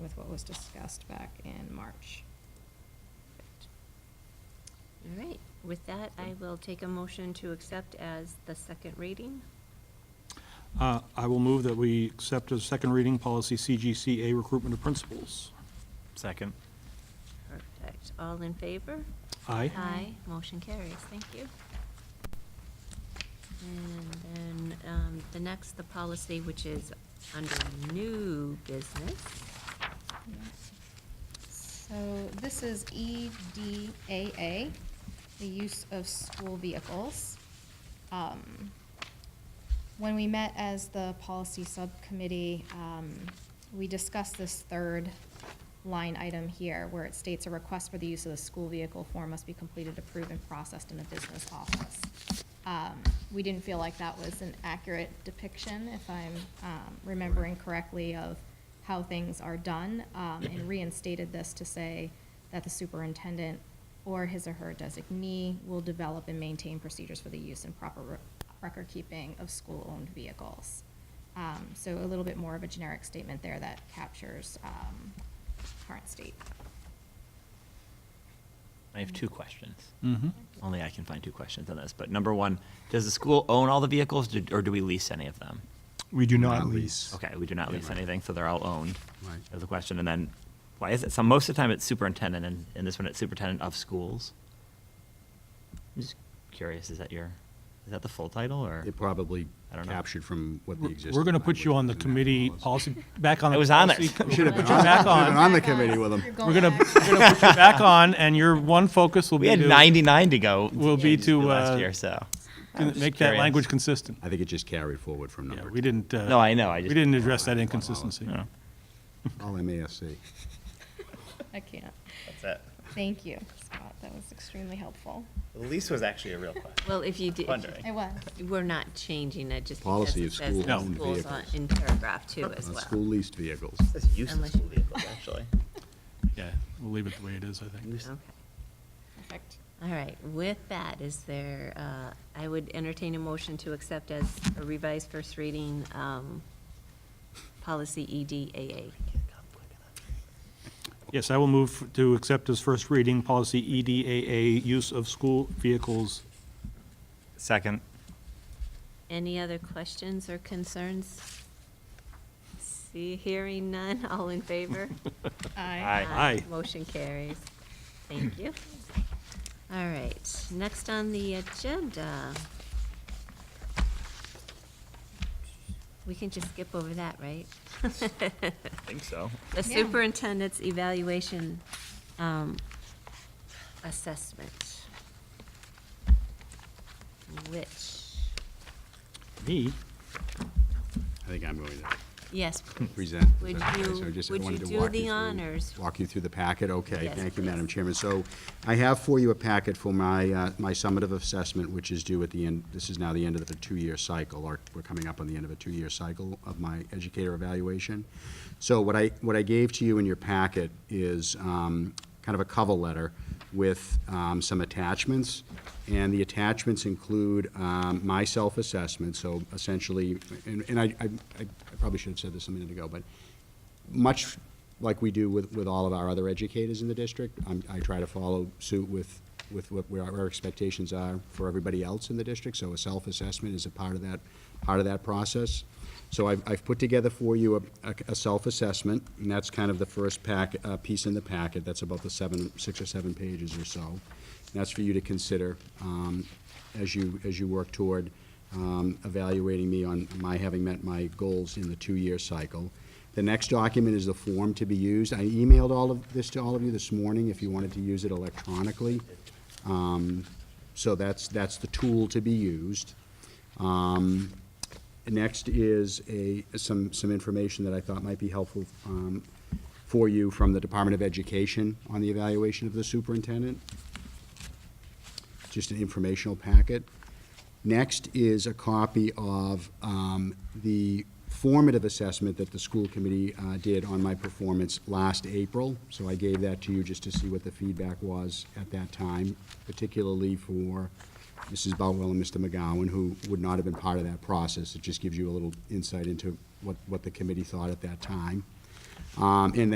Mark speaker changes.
Speaker 1: was discussed back in March.
Speaker 2: All right, with that, I will take a motion to accept as the second reading.
Speaker 3: Uh, I will move that we accept as second reading policy CGCA recruitment of principals.
Speaker 4: Second.
Speaker 2: Perfect. All in favor?
Speaker 3: Aye.
Speaker 2: Aye. Motion carries. Thank you. And then um, the next, the policy, which is under new business.
Speaker 1: So this is E EDAA, the use of school vehicles. Um, When we met as the policy subcommittee, um, we discussed this third line item here, where it states a request for the use of the school vehicle form must be completed, approved, and processed in the business office. Um, We didn't feel like that was an accurate depiction, if I'm um, remembering correctly, of how things are done, um, and reinstated this to say that the superintendent or his or her designee will develop and maintain procedures for the use and proper re- record-keeping of school-owned vehicles. Um, So a little bit more of a generic statement there that captures um, current state.
Speaker 4: I have two questions.
Speaker 3: Mm-hmm.
Speaker 4: Only I can find two questions on this, but number one, does the school own all the vehicles do- or do we lease any of them?
Speaker 3: We do
Speaker 5: not lease.
Speaker 4: Okay, we do not
Speaker 5: Yeah,
Speaker 4: lease
Speaker 5: right.
Speaker 4: anything, so they're all owned.
Speaker 5: Right.
Speaker 4: That's a question. And then, why is it, so most of the time it's superintendent and, and this one it's superintendent of schools? I'm just curious, is that your, is that the full title or?
Speaker 5: It probably
Speaker 4: I don't know.
Speaker 5: captured from what the
Speaker 3: We're
Speaker 5: existing.
Speaker 3: going to put you on the
Speaker 5: language in that
Speaker 3: committee
Speaker 5: was.
Speaker 3: policy, back on.
Speaker 4: I
Speaker 3: the
Speaker 4: was on it.
Speaker 3: policy-
Speaker 5: You should have been
Speaker 3: Put you
Speaker 5: on-
Speaker 3: back
Speaker 5: you should have been
Speaker 3: on.
Speaker 5: the committee with them.
Speaker 3: We're going to, we're going to put you back on, and your one focus will be
Speaker 4: We had
Speaker 3: to-
Speaker 4: ninety-nine to go.
Speaker 3: Will be to,
Speaker 4: Last
Speaker 3: uh,
Speaker 4: year, so.
Speaker 3: to
Speaker 4: I'm just
Speaker 3: Make that
Speaker 4: curious.
Speaker 3: language consistent.
Speaker 5: I think it just carried forward from number
Speaker 3: Yeah,
Speaker 5: two.
Speaker 3: we didn't. uh,
Speaker 4: No, I know, I
Speaker 3: We
Speaker 4: just-
Speaker 3: didn't address that inconsistency.
Speaker 4: No,
Speaker 5: All MASC.
Speaker 1: I can't.
Speaker 4: That's it.
Speaker 1: Thank you, Scott. That was extremely helpful.
Speaker 4: The lease was actually a real question.
Speaker 2: Well, if you did,
Speaker 4: Wondering.
Speaker 1: It was.
Speaker 2: we're not changing it just because
Speaker 5: Policy
Speaker 2: it
Speaker 5: of
Speaker 2: says the
Speaker 5: school-owned
Speaker 2: schools on-
Speaker 5: vehicles.
Speaker 2: in paragraph two as
Speaker 5: On
Speaker 2: well.
Speaker 5: Uh, school leased vehicles.
Speaker 4: This is use of
Speaker 2: Unless-
Speaker 4: school vehicles, actually.
Speaker 3: Yeah, we'll leave it the way it is, I think.
Speaker 4: Use-
Speaker 2: Okay.
Speaker 1: Perfect.
Speaker 2: All right, with that, is there, uh, I would entertain a motion to accept as a revised first reading, um, policy E EDAA.
Speaker 3: Yes, I will move to accept as first reading policy E EDAA, use of school vehicles.
Speaker 4: Second.
Speaker 2: Any other questions or concerns? See, hearing none, all in favor?
Speaker 1: Aye.
Speaker 3: Aye.
Speaker 2: Motion carries. Thank you. All right, next on the agenda. We can just skip over that, right?
Speaker 4: I think so.
Speaker 2: The
Speaker 1: Yeah.
Speaker 2: superintendent's evaluation um, assessment, which,
Speaker 3: Me?
Speaker 5: I think I'm going to
Speaker 2: yes, please.
Speaker 5: present. Is
Speaker 2: Would
Speaker 5: that okay?
Speaker 2: you-
Speaker 5: So I just
Speaker 2: would
Speaker 5: wanted
Speaker 2: you
Speaker 5: to
Speaker 2: do
Speaker 5: walk
Speaker 2: the
Speaker 5: you through-
Speaker 2: honors?
Speaker 5: Walk you through the packet, okay.
Speaker 2: Yes,
Speaker 5: Thank you,
Speaker 2: please.
Speaker 5: Madam Chairman. So I have for you a packet for my, uh, my summative assessment, which is due at the end, this is now the end of the two-year cycle, or we're coming up on the end of a two-year cycle of my educator evaluation. So what I, what I gave to you in your packet is um, kind of a cover letter with um, some attachments. And the attachments include um, my self-assessment, so essentially, and and I, I I probably should have said this a minute ago, but much like we do with, with all of our other educators in the district, I'm, I try to follow suit with, with what where our expectations are for everybody else in the district, so a self-assessment is a part of that, part of that process. So I've, I've put together for you a- a, a self-assessment, and that's kind of the first pack, uh, piece in the packet, that's about the seven, six or seven pages or so. And That's for you to consider, um, as you, as you work toward, um, evaluating me on my having met my goals in the two-year cycle. The next document is the form to be used. I emailed all of this to all of you this morning, if you wanted to use it electronically. Um, So that's, that's the tool to be used. Um, Next is a, some, some information that I thought might be helpful um, for you from the Department of Education on the evaluation of the superintendent. Just an informational packet. Next is a copy of um, the formative assessment that the school committee uh, did on my performance last April. So I gave that to you just to see what the feedback was at that time, particularly for Mrs. Boutwell and Mr. McGowan, who would not have been part of that process. It just gives you a little insight into what, what the committee thought at that time. Um, And